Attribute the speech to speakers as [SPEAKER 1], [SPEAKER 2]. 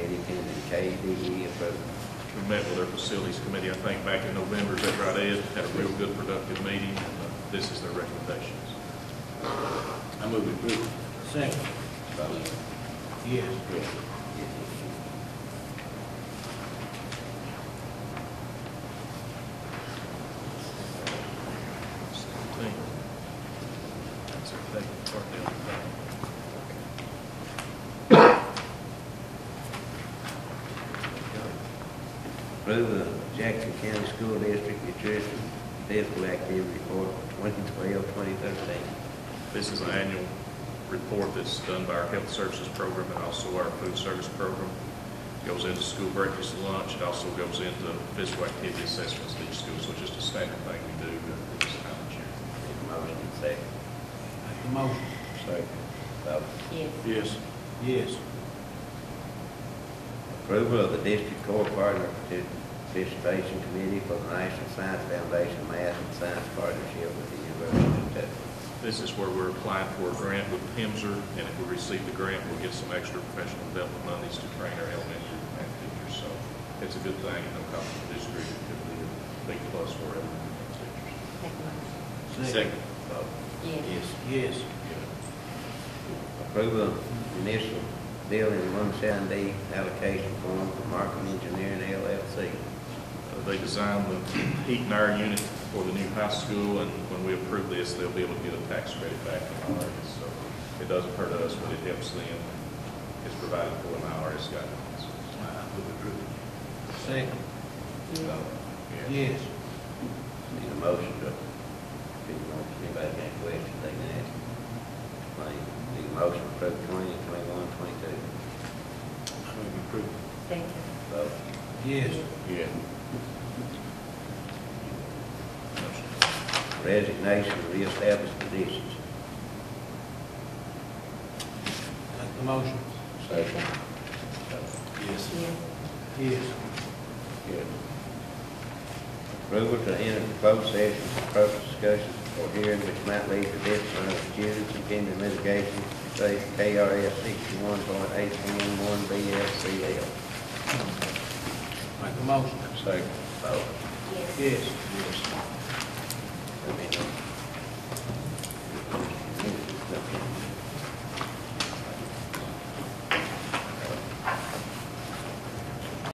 [SPEAKER 1] KDE improvement.
[SPEAKER 2] We met with our facilities committee, I think, back in November, is that right, Ed? Had a real good productive meeting, and uh, this is their recommendations.
[SPEAKER 3] I move we approve.
[SPEAKER 4] Second.
[SPEAKER 1] Vote.
[SPEAKER 4] Yes.
[SPEAKER 1] Yes.
[SPEAKER 2] Seventeen. That's a big part of the
[SPEAKER 1] Approve of Jackson County School District Nutrition Physical Activity Report for 2012, 2013.
[SPEAKER 2] thing. This is an annual report that's done by our health services program and also our food service program. Goes into school breakfast and lunch, it also goes into physical activity assessments at each school, so it's just a standard thing we do uh, this time of year.
[SPEAKER 1] Need a motion and second.
[SPEAKER 4] Make the motion.
[SPEAKER 1] Second. Vote.
[SPEAKER 5] yes,
[SPEAKER 3] Yes.
[SPEAKER 4] Yes.
[SPEAKER 1] Approval of the District Core Partner Participation Committee for the National Science Foundation Math and Science Partnership with the University of Kentucky.
[SPEAKER 2] This is where we're applying for a grant with PIMSR, and if we receive the grant, we'll get some extra professional development monies to train our elementary math teachers. So it's a good thing, and no cost to the district, it could be a big plus for our math teachers. uh,
[SPEAKER 5] make a motion,
[SPEAKER 3] Second.
[SPEAKER 1] Vote.
[SPEAKER 5] yes,
[SPEAKER 4] Yes.
[SPEAKER 1] Approval of municipal building one seven D allocation form for Markham Engineering LLC.
[SPEAKER 2] Uh, They designed the heat and air unit for the new high school, and when we approve this, they'll be able to get a tax credit back from IRS. So it doesn't hurt us, but it helps them. It's provided for in IRS guidelines.
[SPEAKER 3] I move we approve.
[SPEAKER 4] Second.
[SPEAKER 5] yes,
[SPEAKER 1] Vote.
[SPEAKER 4] Yes.
[SPEAKER 1] Need a motion to, if you want, if anybody got any questions, they can ask. Claim, need a motion to approve twenty, twenty-one, twenty-two.
[SPEAKER 3] I move we approve.
[SPEAKER 5] second,
[SPEAKER 1] Vote.
[SPEAKER 4] Yes.
[SPEAKER 3] Yeah.
[SPEAKER 2] Motion.
[SPEAKER 1] Resignation of reestablished positions.
[SPEAKER 4] Make the motion.
[SPEAKER 5] second,
[SPEAKER 3] Yes.
[SPEAKER 5] yes,
[SPEAKER 4] Yes.
[SPEAKER 1] Good. Approval to enter the closed session for purpose discussion or hearing which might lead to discipline of students and pending litigation, say KRS sixty-one point eight one one BSCL.
[SPEAKER 4] Make the motion.
[SPEAKER 1] Second. Vote.
[SPEAKER 5] yes,
[SPEAKER 4] Yes.
[SPEAKER 1] Yes.